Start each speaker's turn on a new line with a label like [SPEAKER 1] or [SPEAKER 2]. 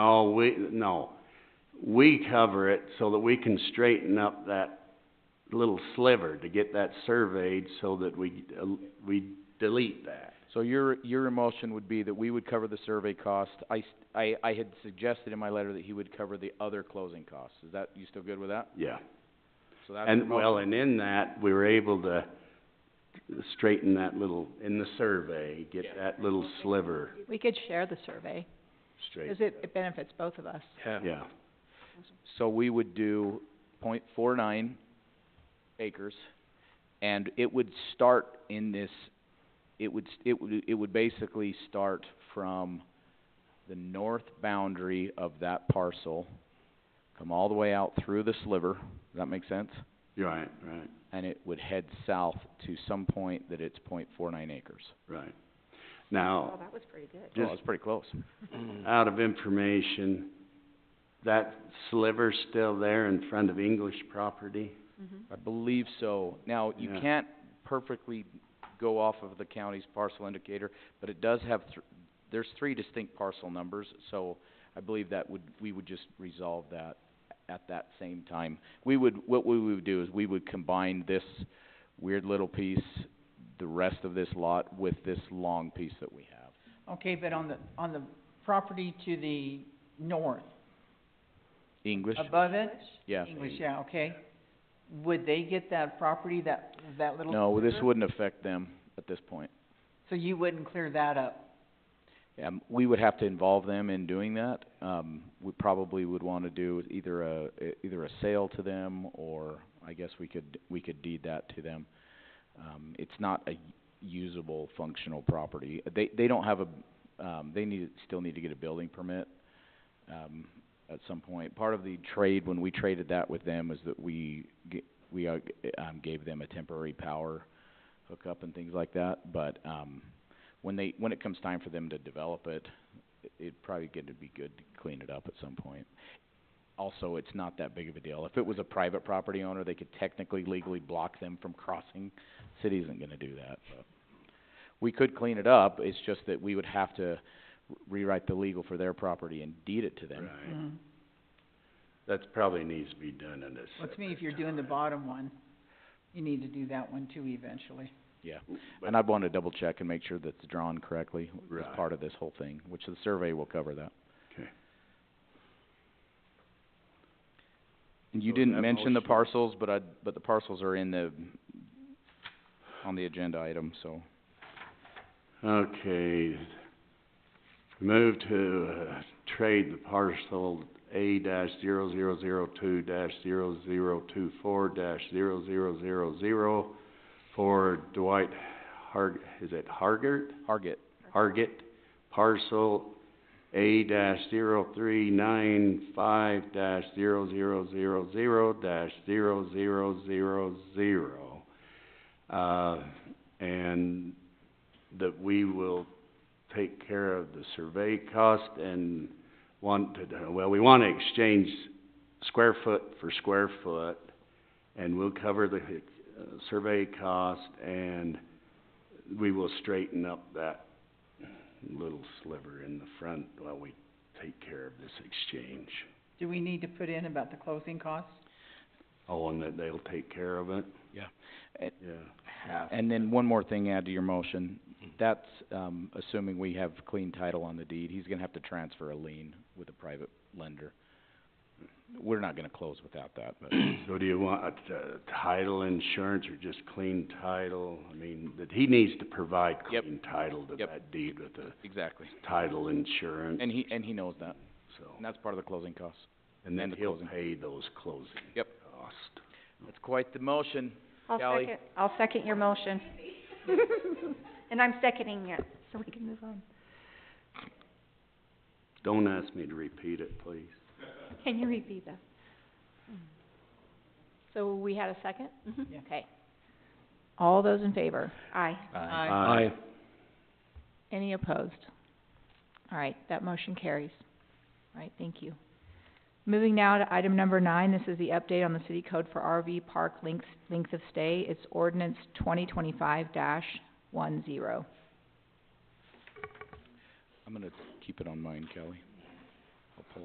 [SPEAKER 1] No, Oh, we, no. We cover it so that we can straighten up that little sliver to get that surveyed so that we, uh, we delete that.
[SPEAKER 2] So your, your emotion would be that we would cover the survey cost. I, s- I- I had suggested in my letter that he would cover the other closing costs. Is that, you still good with that?
[SPEAKER 1] Yeah.
[SPEAKER 2] So that's your
[SPEAKER 1] And, well,
[SPEAKER 2] motion.
[SPEAKER 1] and in that, we were able to straighten that little, in the survey, get
[SPEAKER 2] Yeah.
[SPEAKER 1] that little sliver
[SPEAKER 3] We could share the survey,
[SPEAKER 1] straight,
[SPEAKER 3] cause it, it benefits both of us.
[SPEAKER 1] yeah.
[SPEAKER 2] So we would do point four nine acres, and it would start in this, it would, s- it would, it would basically start from the north boundary of that parcel, come all the way out through the sliver. Does that make sense?
[SPEAKER 1] You're Right, right,
[SPEAKER 2] and it would head south to some point that it's point four nine acres.
[SPEAKER 1] right. Now,
[SPEAKER 3] that was pretty good.
[SPEAKER 2] Oh,
[SPEAKER 1] Just-
[SPEAKER 2] that's pretty close.
[SPEAKER 1] out of information, that sliver's still there in front of English property?
[SPEAKER 3] Mm-hmm.
[SPEAKER 2] I believe so. Now, you
[SPEAKER 1] Yeah.
[SPEAKER 2] can't perfectly go off of the county's parcel indicator, but it does have thr- there's three distinct parcel numbers, so I believe that would, we would just resolve that at that same time. We would, what we would do is we would combine this weird little piece, the rest of this lot, with this long piece that we have.
[SPEAKER 4] Okay, but on the, on the property to the north,
[SPEAKER 2] English?
[SPEAKER 4] above it?
[SPEAKER 2] Yeah.
[SPEAKER 4] English, yeah, okay. Would they get that property, that, that little?
[SPEAKER 2] No, this
[SPEAKER 4] sliver?
[SPEAKER 2] wouldn't affect them at this point.
[SPEAKER 4] So you wouldn't clear that up?
[SPEAKER 2] Um, we would have to involve them in doing that. Um, we probably would wanna do either a, e- either a sale to them, or I guess we could, we could deed that to them. Um, it's not a usable, functional property. They, they don't have a, um, they need, still need to get a building permit, um, at some point. Part of the trade, when we traded that with them, is that we g- we, uh, g- um, gave them a temporary power hookup and things like that, but, um, when they, when it comes time for them to develop it, it- it'd probably get to be good to clean it up at some point. Also, it's not that big of a deal. If it was a private property owner, they could technically legally block them from crossing. City isn't gonna do that, but. We could clean it up, it's just that we would have to rewrite the legal for their property and deed it to them.
[SPEAKER 1] Right, that probably needs to be done in a
[SPEAKER 4] Well,
[SPEAKER 1] separate
[SPEAKER 4] to me, if you're doing the bottom one, you need to do that one too eventually.
[SPEAKER 2] Yeah,
[SPEAKER 1] But-
[SPEAKER 2] and I'd wanna double check and make sure that it's drawn correctly as
[SPEAKER 1] Right.
[SPEAKER 2] part of this whole thing, which the survey will cover that.
[SPEAKER 1] Okay.
[SPEAKER 2] And you
[SPEAKER 1] So
[SPEAKER 2] didn't
[SPEAKER 1] that
[SPEAKER 2] mention the
[SPEAKER 1] motion-
[SPEAKER 2] parcels, but I, but the parcels are in the, on the agenda item, so.
[SPEAKER 1] Okay, move to, uh, trade the parcel A dash zero zero zero two dash zero zero two four dash zero zero zero zero for Dwight Har- is it Hargert?
[SPEAKER 2] Hargit,
[SPEAKER 1] Hargit, parcel A dash zero three nine five dash zero zero zero zero dash zero zero zero zero. Uh, and that we will take care of the survey cost and want to, well, we wanna exchange square foot for square foot, and we'll cover the, uh, survey cost, and we will straighten up that little sliver in the front while we take care of this exchange.
[SPEAKER 4] Do we need to put in about the closing costs?
[SPEAKER 1] Oh, and that they'll take care of it?
[SPEAKER 2] Yeah.
[SPEAKER 1] Yeah.
[SPEAKER 2] It- and then one more thing add to your motion, that's, um, assuming we have clean title on the deed, he's gonna have to transfer a lien with a private lender. We're not gonna close without that, but
[SPEAKER 1] So do you want, uh, title insurance or just clean title? I mean, that he needs to provide
[SPEAKER 2] Yep.
[SPEAKER 1] clean title to
[SPEAKER 2] Yep.
[SPEAKER 1] that deed with the
[SPEAKER 2] Exactly,
[SPEAKER 1] title insurance,
[SPEAKER 2] and he, and he knows that, and
[SPEAKER 1] so.
[SPEAKER 2] that's part of the closing costs.
[SPEAKER 1] And
[SPEAKER 2] and
[SPEAKER 1] then
[SPEAKER 2] the
[SPEAKER 1] he'll
[SPEAKER 2] closing.
[SPEAKER 1] pay those closing
[SPEAKER 2] Yep.
[SPEAKER 1] costs.
[SPEAKER 2] That's quite the motion,
[SPEAKER 5] I'll
[SPEAKER 2] Callie?
[SPEAKER 5] second, I'll second your motion. And I'm seconding it, so we can move on.
[SPEAKER 1] Don't ask me to repeat it, please.
[SPEAKER 5] Can you repeat that?
[SPEAKER 3] So we had a second?
[SPEAKER 4] Yeah.
[SPEAKER 3] Okay. Mm-hmm. All those in favor?
[SPEAKER 5] Aye.
[SPEAKER 2] Uh,
[SPEAKER 4] Aye.
[SPEAKER 1] Aye.
[SPEAKER 3] Any opposed? All right, that motion carries. All right, thank you. Moving now to item number nine, this is the update on the city code for RV park length, length of stay. It's ordinance twenty twenty-five dash one zero.
[SPEAKER 2] I'm gonna keep it on mine, Kelly. I'll pull